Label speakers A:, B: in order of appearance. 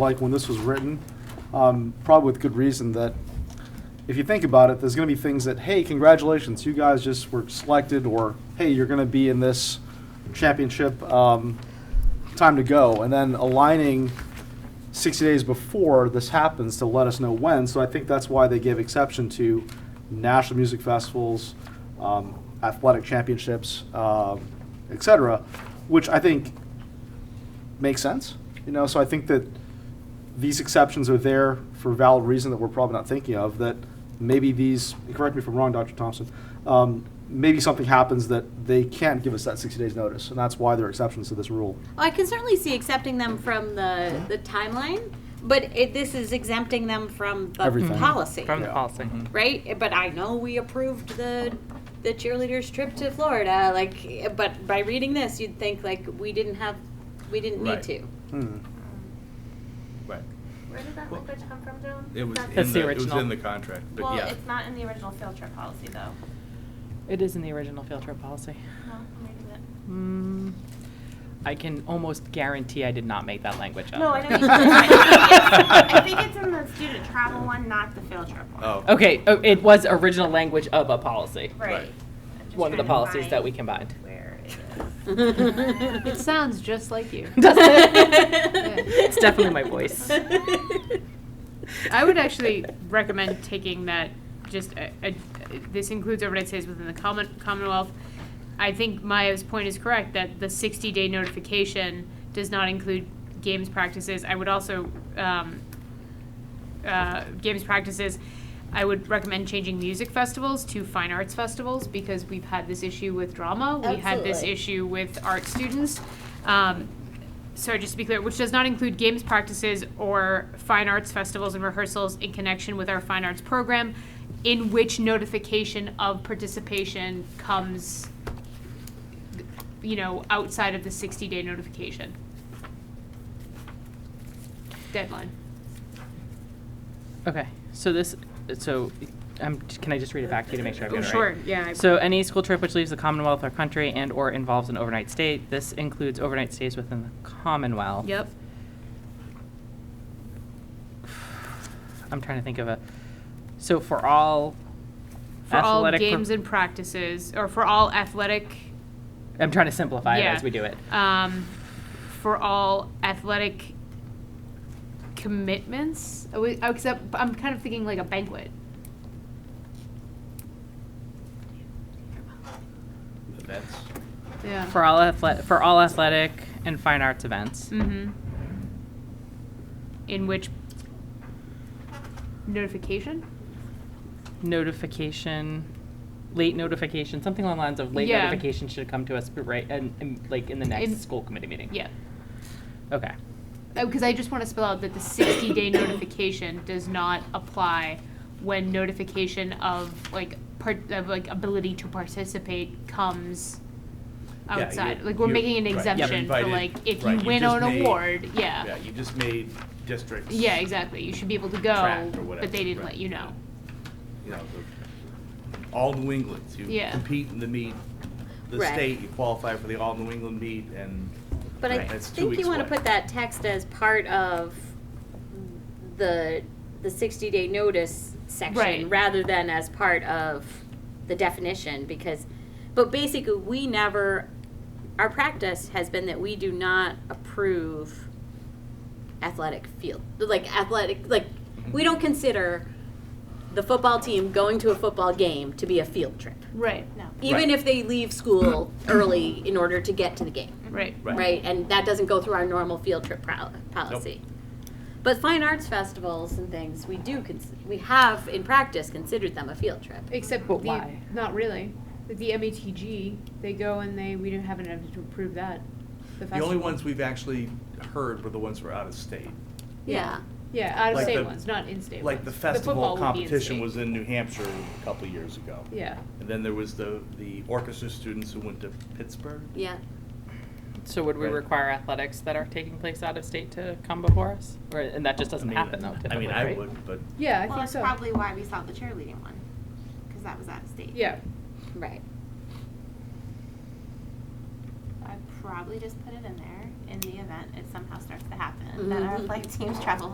A: like when this was written, um, probably with good reason that if you think about it, there's going to be things that, hey, congratulations, you guys just were selected, or hey, you're going to be in this championship. Um, time to go, and then aligning 60 days before this happens to let us know when. So I think that's why they gave exception to national music festivals, um, athletic championships, um, et cetera, which I think makes sense. You know, so I think that these exceptions are there for valid reason that we're probably not thinking of. That maybe these, correct me if I'm wrong, Dr. Thompson, um, maybe something happens that they can't give us that 60 days notice, and that's why there are exceptions to this rule.
B: Well, I can certainly see accepting them from the, the timeline, but it, this is exempting them from the
A: Everything.
B: policy,
C: From the
A: Yeah.
C: policy.
B: right? But I know we approved the the cheerleaders trip to Florida, like, but by reading this, you'd think like we didn't have, we didn't need
D: Right.
B: to.
A: Hmm.
D: Right.
E: Where did that
D: Well,
E: language come from, Joan?
D: It was
E: That's-
D: in
C: That's the
D: the, it was
C: original.
D: in the contract, but
E: Well,
D: yeah.
E: it's not in the original field trip policy, though.
C: It is in the original field trip policy.
E: No, maybe that.
C: Mm, I can almost guarantee I did not make that language up.
E: No, I know. you did. I think it's- I think it's in the student travel one, not the field trip one.
D: Oh.
C: Okay, oh, it was original language of a policy.
E: Right.
D: Right.
E: I'm just
C: One of the
E: trying to
C: policies
E: find
C: that we combined.
E: Where it is.
F: It sounds just like you.
C: It's definitely my voice.
F: I would actually recommend taking that, just, a- a- this includes overnight stays within the common- Commonwealth. I think Maya's point is correct, that the 60-day notification does not include games practices. I would also, um, uh, games practices, I would recommend changing music festivals to fine arts festivals, because we've had this issue with drama. We had this
B: Absolutely.
F: issue with art students. Um, sorry, just to be clear, which does not include games practices or fine arts festivals and rehearsals in connection with our fine arts program, in which notification of participation comes, you know, outside of the 60 day notification deadline.
C: Okay, so this, so, um, can I just read it back to you to make sure I've got it right?
F: Oh, Sure, yeah. I-
C: So any school trip which leaves the Commonwealth or country and/or involves an overnight stay, this includes overnight stays within the Commonwealth.
F: Yep.
C: I'm trying to think of a, so for all
F: For all
C: athletic.
F: games
C: per-
F: and practices, or for all athletic
C: I'm trying to simplify it
F: Yeah.
C: as we do it.
F: um, for all athletic commitments. Oh, wait, oh, Except I'm kind of thinking like a banquet.
D: Events.
F: Yeah.
C: For all athletic, for all athletic and fine arts events.
F: Mm-hmm. In which notification?
C: Notification, late notification, something along the lines of late
F: Yeah.
C: notification should come to us right, and, and like in the next
F: In-
C: school committee meeting.
F: Yeah.
C: Okay.
F: Because Oh, I just want to spell out that the 60 day notification does not apply when notification of like part of like ability to participate comes
D: Yeah, you-
F: outside. like we're
G: you-
F: making an
D: right, you're
F: exemption for
G: invited-
F: like if
G: right,
F: you
G: you
F: win
G: just
F: an
G: made-
F: award, yeah.
G: Yeah, you just made districts.
F: Yeah, exactly. You should be able to
G: Track
F: go,
G: or whatever,
F: but they didn't
G: right.
F: let you know.
G: You know, the- all New England's. You
F: Yeah.
G: compete in the meet, the
B: Right.
G: state, you qualify for the all New England meet and.
B: But I
G: Right. That's two
B: think you
G: weeks
B: want to
G: away.
B: put that text as part of the, the sixty day notice section
F: Right.
B: rather than as part of the definition because, but basically, we never, our practice has been that we do not approve athletic field, like athletic, like, we don't consider the football team going to a football game to be a field trip.
F: Right.
B: Even
G: Right.
B: if they leave school early in order to get to the game
F: Right.
G: Right.
B: right? And that doesn't go through our normal field trip pro- policy. But fine arts festivals and things, we do, cons- we have in practice considered them a field trip.
F: Except
C: But the- why?
F: Not really. The MATG, they go and they we don't have enough to approve that.
G: The only ones we've actually heard were the ones who were out of state.
B: Yeah.
F: Yeah, out
G: of Like state the- ones,
F: not in-state
G: Like the festival competition was in New Hampshire a couple of years ago.
F: Yeah.
G: And then there was the, the orchestra students who went to Pittsburgh.
B: Yeah.
C: So would we
G: Right.
C: require athletics that are taking place out of state to come before us? Or, and that just
G: I
C: doesn't
G: mean,
C: happen though
G: I
C: typically,
G: mean, I
C: right?
G: would, but
F: Yeah,
E: Well, that's probably why we saw the cheerleading one, because that was out of state.
B: Right.
E: I probably just put it in there Mm-hmm. in the event it somehow starts to happen, that our flight teams travel